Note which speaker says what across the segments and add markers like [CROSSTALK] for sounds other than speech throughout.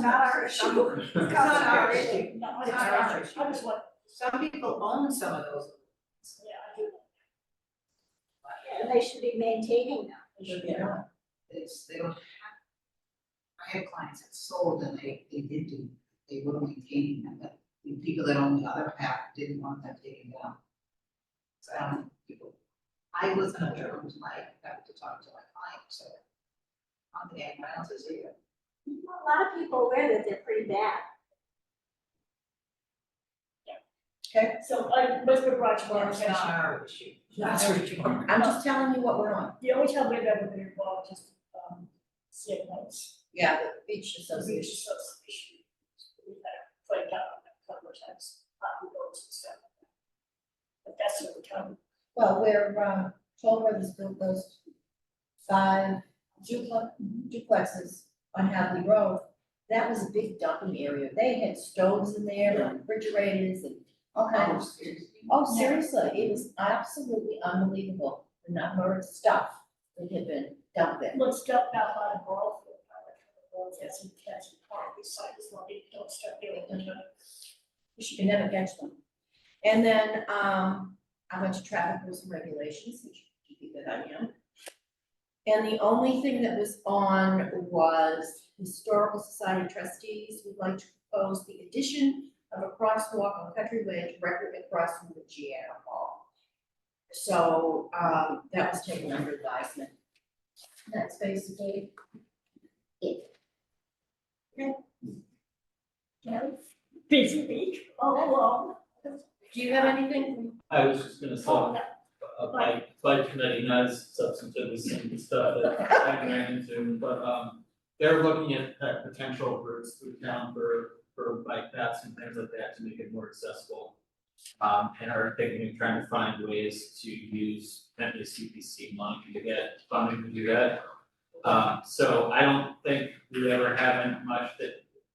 Speaker 1: not our issue. It's not our issue.
Speaker 2: No,
Speaker 1: It's our issue.
Speaker 2: I just want,
Speaker 1: Some people own some of those.
Speaker 2: yeah, I do.
Speaker 3: And they should be maintaining them.
Speaker 2: It should
Speaker 1: They
Speaker 2: be done.
Speaker 1: don't. It's, they don't have. I have clients that sold and they, they did do, they were maintaining them, but the people that own the other half didn't want them taken down. So I don't, know, people, I was on a journal tonight, I have to talk to my client, so. On the end, what else is here?
Speaker 3: A lot of people wear that, they're pretty bad.
Speaker 2: So I, Westwood Rochester, Bar
Speaker 1: It's not our issue.
Speaker 2: Not
Speaker 1: our issue. I'm just telling you what we're on.
Speaker 2: the only time we've ever been involved is, um, CF notes.
Speaker 1: Yeah, the beach
Speaker 2: We just sort of issue. We've had a fight down on that a couple of times, on roads and stuff. But that's the only time.
Speaker 4: Well, where, um, Toll Brothers built those five duplex, duplexes on Hadley Road, that was a big dumping area, they had stoves in there, and refrigerators, and all kinds of. Oh, seriously, it was absolutely unbelievable, the number of stuff that had been dumped there.
Speaker 2: Let's step back on a ball field. I like the ball field, that's in Kansas Park, we signed this one, we don't start doing it.
Speaker 4: You can never catch them. And then, um, I went to traffic rules and regulations, which you think that I am. And the only thing that was on was historical society trustees would like to propose the addition of a crosswalk on Country Way directly across from the Gianna Hall. So, um, that was taken under advisement. That's basically it.
Speaker 2: Busy week,
Speaker 4: Oh,
Speaker 2: all along.
Speaker 4: Do you have anything?
Speaker 5: I was just gonna uh,
Speaker 2: Oh,
Speaker 5: talk
Speaker 2: no.
Speaker 5: about my flight committee, not as substantive as some of the stuff that I ran into, but, um, they're looking at, at potential routes through town for, for bike paths and things like that to make it more accessible. Um, and are thinking of trying to find ways to use MSCPC money to get funding to do that. Um, so I don't think we ever have much that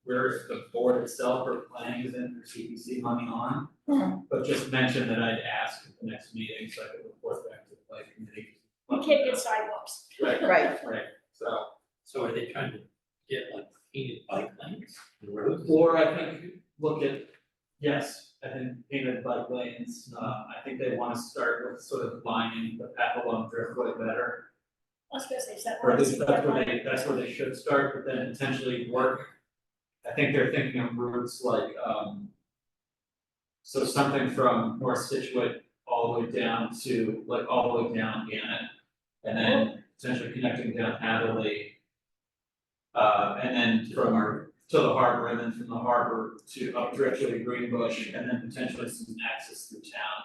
Speaker 5: where the board itself or planning is in for CPC money on. But just mention that I'd ask at the next meeting, so I could report back to the planning committee.
Speaker 2: We can't get sidewalks.
Speaker 5: Right,
Speaker 4: Right,
Speaker 5: right, so,
Speaker 6: So are they trying to get like painted bike lanes and roads?
Speaker 5: or I think, look at, yes, I think painted bike lanes, uh, I think they wanna start with sort of lining the path along Driftway better.
Speaker 2: I was gonna say, is that
Speaker 5: Or at
Speaker 2: one,
Speaker 5: least
Speaker 2: is
Speaker 5: that's
Speaker 2: that
Speaker 5: where
Speaker 2: one?
Speaker 5: they, that's where they should start, but then potentially work. I think they're thinking of routes like, um. So something from North Situate all the way down to, like, all the way down Gannett. And then potentially connecting down Hadley. Uh, and then from our, to the harbor, and then from the harbor to up directly to Greenbush, and then potentially some access through town.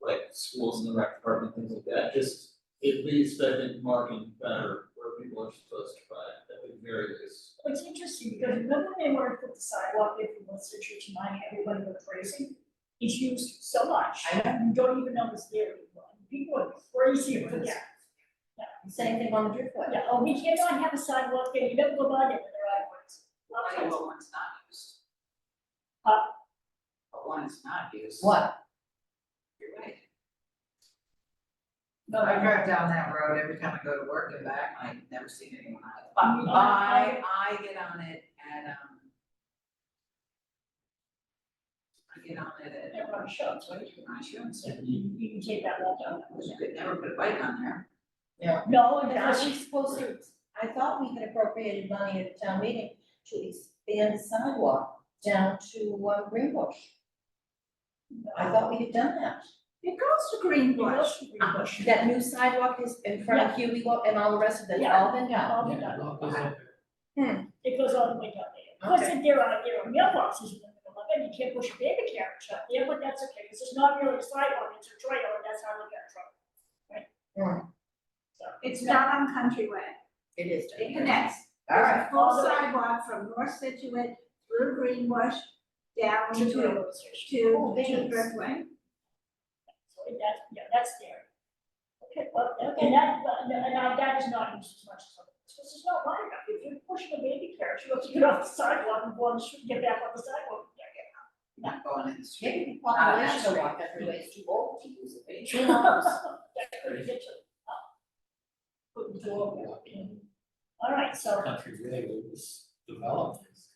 Speaker 5: Like schools and the rec department, things like that, just it leaves, I think, marking better where people are supposed to buy it, at the very least.
Speaker 2: Well, It's interesting, because remember they wanted to put the sidewalk in from West Citrus to mine, everybody went crazy? It's used so much,
Speaker 4: I know.
Speaker 2: you don't even know it's there anymore, people are crazy for that.
Speaker 4: same thing on the driftway.
Speaker 2: Yeah, oh, we cannot have a sidewalk there, you never go by there, there are ones. Lot of
Speaker 1: I know
Speaker 2: times.
Speaker 1: what one's not used.
Speaker 2: Huh?
Speaker 1: But one is not used.
Speaker 4: What?
Speaker 1: You're right. No, I drive down that road every time I go to work and back, and I've never seen anyone on it. But I, I get on it at, um. I get on it at,
Speaker 2: Everyone shows,
Speaker 1: what do you, my shoes,
Speaker 2: you, you can take that walk down.
Speaker 1: you could never put a bike on there.
Speaker 2: No,
Speaker 4: But
Speaker 2: that's,
Speaker 4: aren't we supposed to, I thought we had appropriated money at the town meeting to expand sidewalk down to uh, Greenbush. I thought we had done that.
Speaker 1: It goes to Greenbush.
Speaker 2: Bush.
Speaker 4: That new sidewalk is in front of Huey Lo- and all the rest of it, it's all been done.
Speaker 2: All
Speaker 6: Yeah,
Speaker 2: done.
Speaker 6: well, those are-
Speaker 3: Hmm.
Speaker 2: It goes all the way down there. Of course,
Speaker 4: Okay.
Speaker 2: there are, there are mailboxes in the middle of it, you can't push a baby carriage up there, but that's okay, because it's not really a sidewalk, it's a trail, and that's how we got trouble.
Speaker 3: Hmm. It's not on country way.
Speaker 4: It is
Speaker 3: It connects.
Speaker 4: All right,
Speaker 3: There's a Full sidewalk from North Situate through Greenbush down
Speaker 2: To
Speaker 3: to,
Speaker 2: the
Speaker 3: to,
Speaker 2: railroad station.
Speaker 4: Oh,
Speaker 3: to
Speaker 4: thanks.
Speaker 3: Driftway.
Speaker 2: So that's, yeah, that's there. Okay, well, okay, that, but- and I, that is not used as much as other, because it's not wide enough, if you're pushing a baby carriage, you have to get off the sidewalk and go on the street, get back on the sidewalk. Yeah, yeah.
Speaker 1: Not going in the street.
Speaker 4: maybe the population will walk that way, it's too old to use [LAUGHS] it. Who knows?
Speaker 2: That's pretty good, too. Uh, Put the door walk in. All right, so
Speaker 6: Country Way was developed,